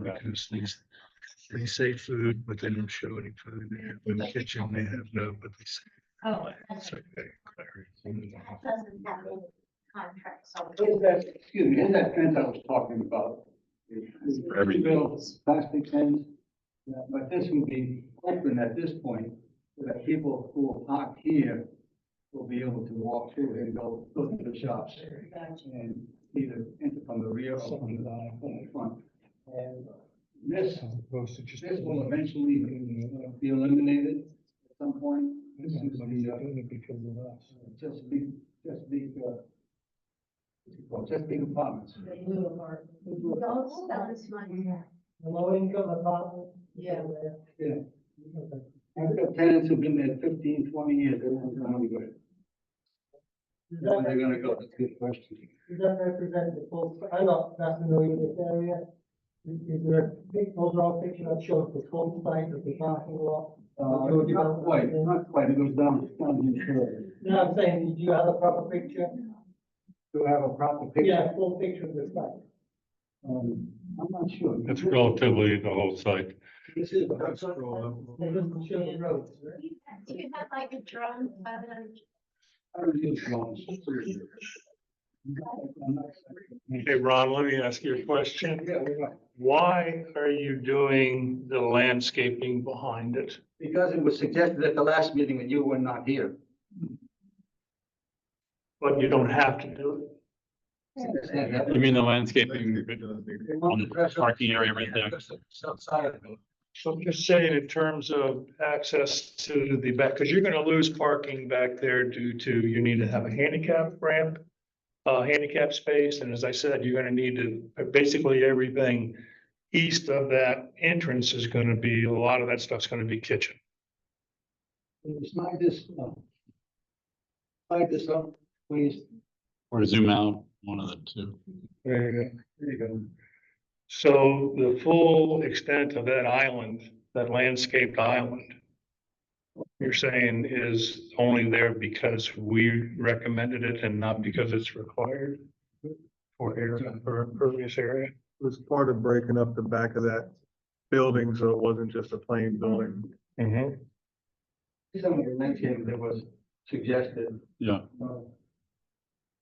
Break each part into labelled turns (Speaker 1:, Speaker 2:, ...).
Speaker 1: because these, they say food, but they don't show any food there. In the kitchen, they have no, but they say.
Speaker 2: Oh.
Speaker 1: it's like that
Speaker 2: Doesn't
Speaker 1: clarity.
Speaker 2: have any contract, so.
Speaker 3: Is that, excuse me, is that fence I was talking about?
Speaker 4: For everything.
Speaker 3: Bills, Plastic fence, Yeah, but this would be open at this point, so that people who are parked here will be able to walk through and go, go to the shops and either enter from the rear or from the, from the front. And this, this will eventually be be eliminated at some point. This is the, uh, just big, just big, uh, well, just big apartments.
Speaker 5: Blue apartment,
Speaker 2: Don't spell
Speaker 5: um,
Speaker 2: this one.
Speaker 5: low income apartment.
Speaker 2: Yeah.
Speaker 3: Yeah. I've got tenants who've been there 15, 20 years, they won't go anywhere.
Speaker 5: Does
Speaker 3: When they're
Speaker 5: that,
Speaker 3: gonna go, that's a good question.
Speaker 5: does that represent the full, I'm not, not familiar with this area. Is- Is there a big overall picture that shows the whole site of the parking lot?
Speaker 3: Uh, not quite, not quite, it goes down, down in here.
Speaker 5: No, I'm saying, do you have a proper picture?
Speaker 3: Do I have a proper picture?
Speaker 5: Yeah, full picture of the site.
Speaker 3: Um, I'm not sure.
Speaker 6: It's relatively the whole site.
Speaker 3: This is,
Speaker 1: That's all.
Speaker 5: It doesn't show the roads, right?
Speaker 2: Do you have like a drone of them?
Speaker 3: I don't use drones. I'm not-
Speaker 6: Hey, Ron, let me ask you a question.
Speaker 3: Yeah, we're right.
Speaker 6: Why are you doing the landscaping behind it?
Speaker 3: Because it was suggested at the last meeting and you were not here.
Speaker 6: But you don't have to do
Speaker 4: You mean the landscaping on the
Speaker 3: Parking
Speaker 4: parking area right there?
Speaker 3: Outside of it.
Speaker 6: it. So I'm just saying in terms of access to the back, because you're gonna lose parking back there due to, you need to have a handicap ramp. Uh, handicap space, and as I said, you're gonna need to, basically everything east of that entrance is gonna be, a lot of that stuff's gonna be kitchen.
Speaker 3: Slide this, up. slide this up, please.
Speaker 4: Or zoom out, one of the two.
Speaker 6: There you go.
Speaker 3: There you go.
Speaker 6: So the full extent of that island, that landscaped island. You're saying is only there because we recommended it and not because it's required? For air, for impervious area?
Speaker 7: was part of breaking up the back of that building, so it wasn't just a plain building.
Speaker 6: Mm-hmm.
Speaker 3: Some of the landscaping that was suggested.
Speaker 4: Yeah.
Speaker 3: uh,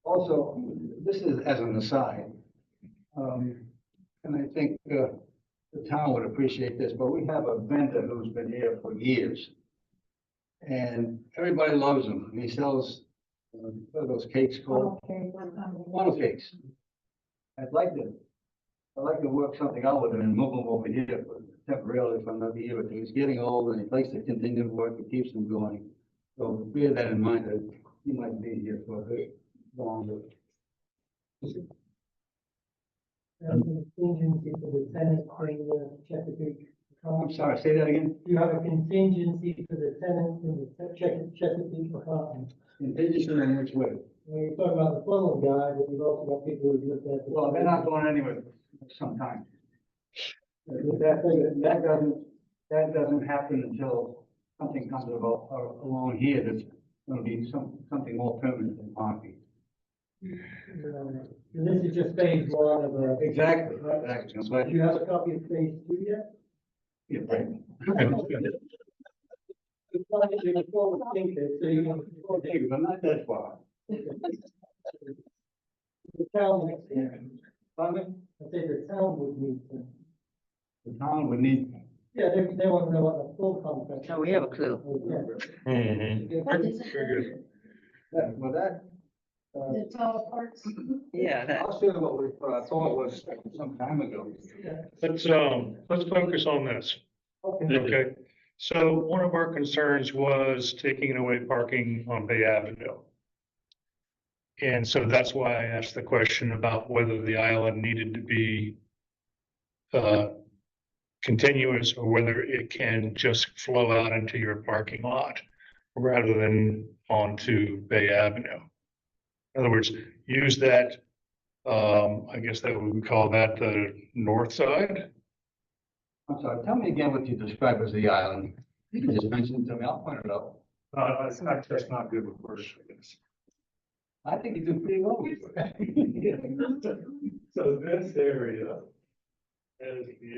Speaker 3: Also, this is as an aside. Um, and I think, uh, the town would appreciate this, but we have a vendor who's been here for years. And everybody loves him, and he sells, uh, what are those cakes called? Funnel cakes. I'd like to, I'd like to work something out with him and move him over here for- temporarily for another year, but he's getting old and he likes to continue to work, it keeps him going. So bear that in mind, that he might be here for a bit longer.
Speaker 5: There's a contingency for the tenant in the Chesapeake.
Speaker 3: Oh, I'm sorry, say that again?
Speaker 5: Do you have a contingency for the tenants in the Chesa- Chesapeake apartment?
Speaker 3: Indigenous in which way?
Speaker 5: When you talk about the funnel guy, but you've also got people who live there.
Speaker 3: Well, they're not going anywhere sometime. That, that doesn't, that doesn't happen until something comes about uh, along here that's gonna be some, something more permanent than parking.
Speaker 5: Um, And this is just phase one of a.
Speaker 3: Exactly, exactly. That's why
Speaker 5: Do
Speaker 3: you
Speaker 5: you
Speaker 3: have
Speaker 5: have a copy of phase two yet?
Speaker 3: to be right.
Speaker 5: It's not that you're a forward thinker, so you want to
Speaker 3: Well, David, I'm not that far.
Speaker 5: the town next year.
Speaker 3: Pardon
Speaker 5: I say the town would need to.
Speaker 3: me? The town would need.
Speaker 5: Yeah, they, they want to know what the full contract.
Speaker 8: No, we have a clue.
Speaker 5: is.
Speaker 6: Mm-hmm.
Speaker 5: Yeah.
Speaker 2: What is it?
Speaker 3: that- Well, that, uh,
Speaker 2: The tall parts?
Speaker 8: Yeah, that,
Speaker 3: I'll say what we, what I thought was some time ago.
Speaker 6: Let's, um, let's focus on this. Okay, so one of our concerns was taking away parking on Bay Avenue. And so that's why I asked the question about whether the island needed to be uh, continuous or whether it can just flow out into your parking lot rather than onto Bay Avenue. In other words, use that, um, I guess that we would call that the north side.
Speaker 3: I'm sorry, tell me again what you describe as the island. You can just mention it to me, I'll point it out.
Speaker 6: Uh, I'm just not good with words for this.
Speaker 3: I think you do pretty well. with it.
Speaker 6: So this area is the